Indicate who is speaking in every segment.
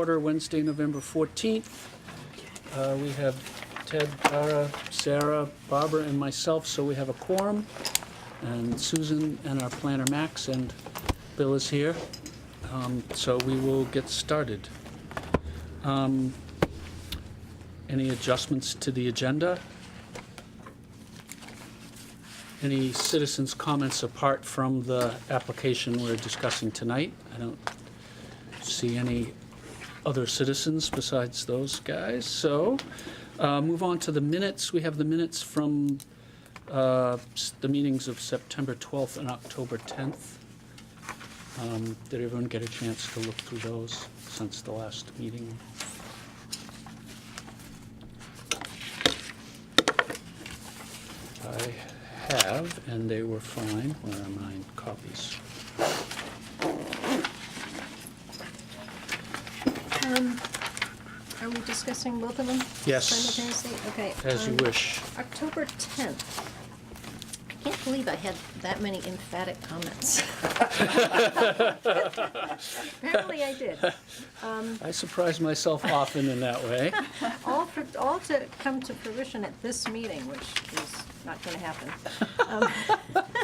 Speaker 1: Order Wednesday, November 14th. Uh, We have Ted, Tara, Sarah, Barbara, and myself, so we have a quorum. And Susan and our planner, Max, and Bill is here. Um, So we will get started. Um, Any adjustments to the agenda? Any citizens' comments apart from the application we're discussing tonight? I don't see any other citizens besides those guys. So, uh, move on to the minutes. We have the minutes from uh, s- the meetings of September 12th and October 10th. Um, Did everyone get a chance to look through those since the last meeting? I have, and they were fine. Where are mine copies?
Speaker 2: Um, Are we discussing both of them?
Speaker 1: Yes.
Speaker 2: Simultaneously, okay.
Speaker 1: As you
Speaker 2: um,
Speaker 1: wish.
Speaker 2: October 10th. I can't believe I had that many emphatic comments. Apparently I did.
Speaker 1: I surprise myself often in that way.
Speaker 2: All, for- all to come to fruition at this meeting, which is not going to happen.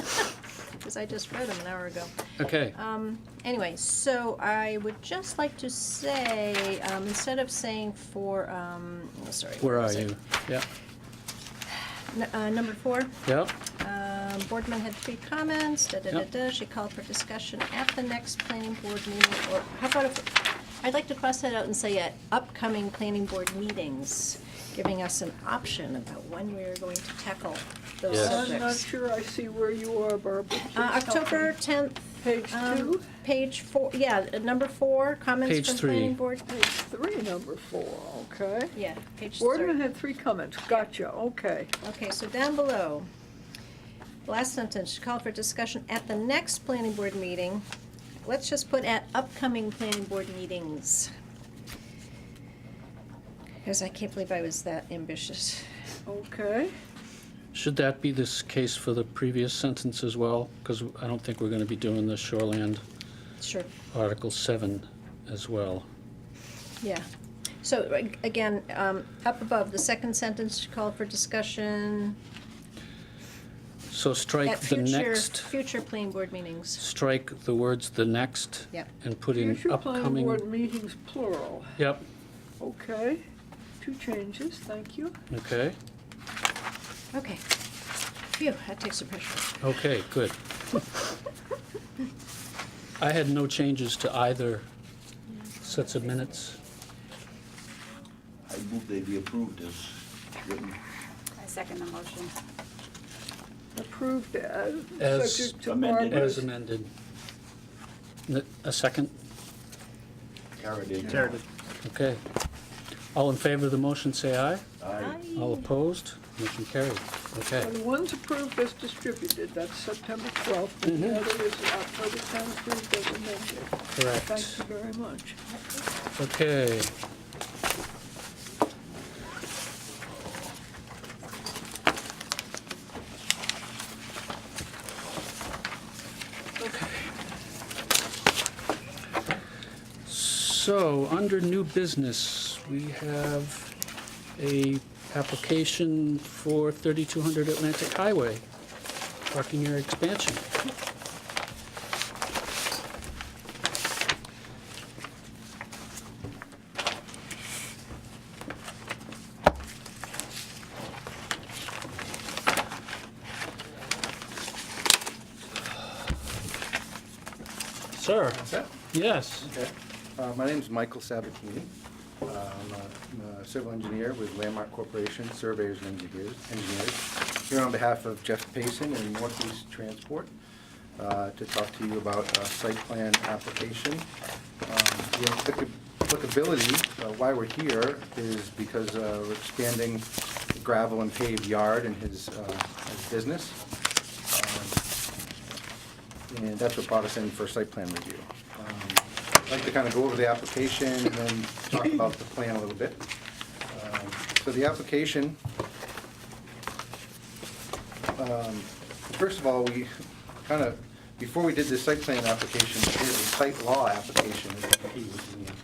Speaker 2: Because I just read them an hour ago.
Speaker 1: Okay.
Speaker 2: Anyway, so I would just like to say, um, instead of saying for, um, oh, sorry.
Speaker 1: Where are
Speaker 2: was it?
Speaker 1: you? Yeah,
Speaker 2: N- uh, Number four.
Speaker 1: yeah.
Speaker 2: Um, Boardman had three comments, da-da-da-da, she called for discussion at the next planning board meeting, or how about if, I'd like to cross that out and say at upcoming planning board meetings, giving us an option about when we're going to tackle those
Speaker 1: Yes.
Speaker 3: I'm not
Speaker 2: subjects.
Speaker 3: sure I see where you are, Barbara.
Speaker 2: Uh,
Speaker 3: Please help me.
Speaker 2: October um, tenth.
Speaker 3: Page two,
Speaker 2: Page four, yeah, uh, number four,
Speaker 1: Page
Speaker 2: comments from planning
Speaker 1: three.
Speaker 2: board.
Speaker 3: page three, number four, okay.
Speaker 2: Yeah, page three.
Speaker 3: Boardman had three comments, gotcha, okay.
Speaker 2: Okay, so down below, last sentence, call for discussion at the next planning board meeting. Let's just put at upcoming planning board meetings. Because I can't believe I was that ambitious.
Speaker 3: Okay,
Speaker 1: Should that be this case for the previous sentence as well? Because I don't think we're going to be doing the Shoreland
Speaker 2: Sure,
Speaker 1: Article 7 as well.
Speaker 2: yeah. So ag- again, um, up above, the second sentence, call for discussion
Speaker 1: So
Speaker 2: at
Speaker 1: strike the
Speaker 2: future,
Speaker 1: next,
Speaker 2: future planning board meetings.
Speaker 1: strike the words "the next"
Speaker 2: Yep.
Speaker 1: and put in
Speaker 3: future planning board
Speaker 1: upcoming.
Speaker 3: meetings plural,
Speaker 1: Yep,
Speaker 3: okay. Two changes, thank you.
Speaker 1: okay,
Speaker 2: Okay. Phew, that takes some pressure. off.
Speaker 1: okay, good. I had no changes to either sets of minutes.
Speaker 4: I move they be approved as written.
Speaker 5: I second the motion.
Speaker 3: Approved as,
Speaker 1: As
Speaker 3: subject to
Speaker 4: amended.
Speaker 1: As
Speaker 3: Barbara's.
Speaker 1: amended. N- A second?
Speaker 4: Kara did.
Speaker 1: Okay. All in favor of the motion, say aye.
Speaker 4: Aye.
Speaker 1: All opposed? Motion carried. Okay.
Speaker 3: And one's approved as distributed, that's September twelfth,
Speaker 1: Mm-hmm.
Speaker 3: and the other is October tenth, approved as amended.
Speaker 1: Correct.
Speaker 3: Thank you very much.
Speaker 1: Okay. So, under new business, we have a application for 3200 Atlantic Highway, parking area expansion. Sir?
Speaker 6: Set?
Speaker 1: Yes.
Speaker 6: Okay. Uh, My name's Michael Sabatini. Um, I'm a civil engineer with Landmark Corporation, surveyors and engineers. engineers. Here on behalf of Jeff Payson and Northeast Transport uh, to talk to you about a site plan application. Um, The applica- applicability, uh, why we're here, is because uh, we're expanding the gravel and paved yard in his uh, his business. Um, and that's what brought us in for site plan review. Um, I'd like to kind of go over the application and then talk about the plan a little bit. Um, So the application, um, first of all, we kind of, before we did the site plan application, we did the site law application, which is the key, which is in